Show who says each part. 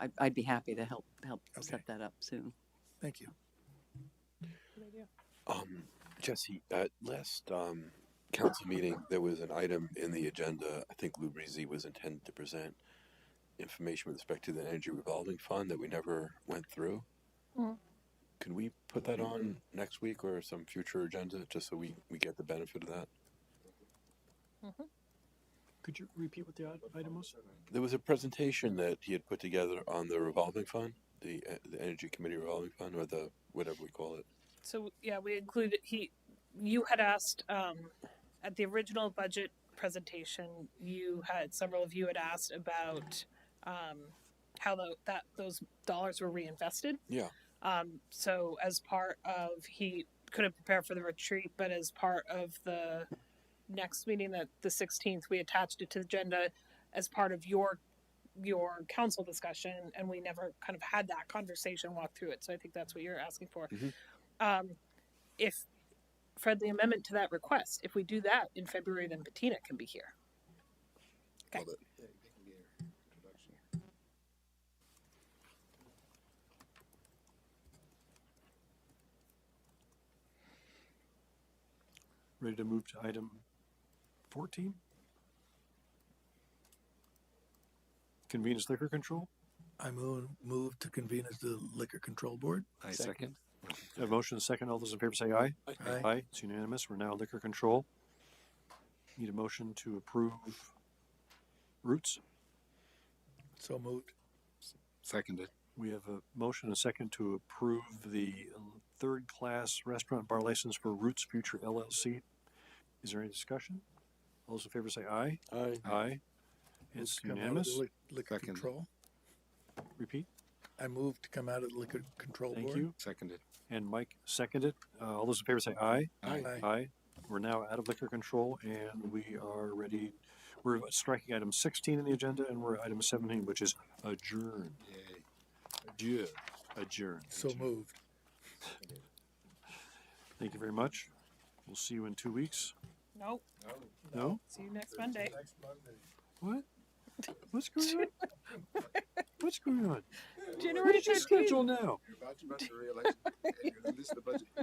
Speaker 1: I, I'd be happy to help, help
Speaker 2: Okay.
Speaker 1: set that up soon.
Speaker 2: Thank you.
Speaker 3: Um, Jesse, at last um, council meeting, there was an item in the agenda. I think Lou Breezy was intended to present information with respect to the energy revolving fund that we never went through.
Speaker 4: Mm.
Speaker 3: Could we put that on next week or some future agenda, just so we, we get the benefit of that?
Speaker 5: Could you repeat what the i- item was?
Speaker 3: There was a presentation that he had put together on the revolving fund, the, uh, the Energy Committee revolving fund, or the, whatever we call it.
Speaker 4: So yeah, we included he. You had asked um, at the original budget presentation. You had several of you had asked about um, how tho- that those dollars were reinvested.
Speaker 3: Yeah.
Speaker 4: Um, so as part of he couldn't prepare for the retreat, but as part of the next meeting that the 16th, we attached it to the agenda as part of your your council discussion, and we never kind of had that conversation walk through it. So I think that's what you're asking for.
Speaker 3: Mhm.
Speaker 4: Um, if Fred, the amendment to that request, if we do that in February, then Bettina can be here. Okay.
Speaker 3: Love it.
Speaker 5: Ready to move to item fourteen? Convenience liquor control?
Speaker 2: I move, move to convene as the Liquor Control Board.
Speaker 6: I second.
Speaker 5: A motion and a second. All those in favor say aye.
Speaker 2: Aye.
Speaker 5: Aye. It's unanimous. We're now liquor control. Need a motion to approve Roots.
Speaker 2: So moved.
Speaker 6: Seconded.
Speaker 5: We have a motion and a second to approve the third class restaurant bar license for Roots Future LLC. Is there any discussion? All those in favor say aye.
Speaker 3: Aye.
Speaker 5: Aye.
Speaker 2: Move
Speaker 5: It's
Speaker 2: to come out of the
Speaker 5: unanimous.
Speaker 2: lic- Liquor
Speaker 6: Second.
Speaker 2: Control.
Speaker 5: Repeat.
Speaker 2: I move to come out of the Liquor Control Board.
Speaker 5: Thank you.
Speaker 6: Seconded.
Speaker 5: And Mike seconded. Uh, all those in favor say aye.
Speaker 6: Aye.
Speaker 2: Aye.
Speaker 5: Aye. We're now out of liquor control and we are ready. We're striking item sixteen in the agenda and we're at item seventeen, which is adjourn.
Speaker 6: Yay. Adieu.
Speaker 5: Adjourn.
Speaker 2: So moved.
Speaker 5: Thank you very much. We'll see you in two weeks.
Speaker 4: Nope.
Speaker 5: No?
Speaker 4: See you next Monday.
Speaker 5: What? What's going on? What's going on? What is
Speaker 4: Generation
Speaker 5: your schedule now?
Speaker 7: You're about to run for reelection, and you're gonna list the budget.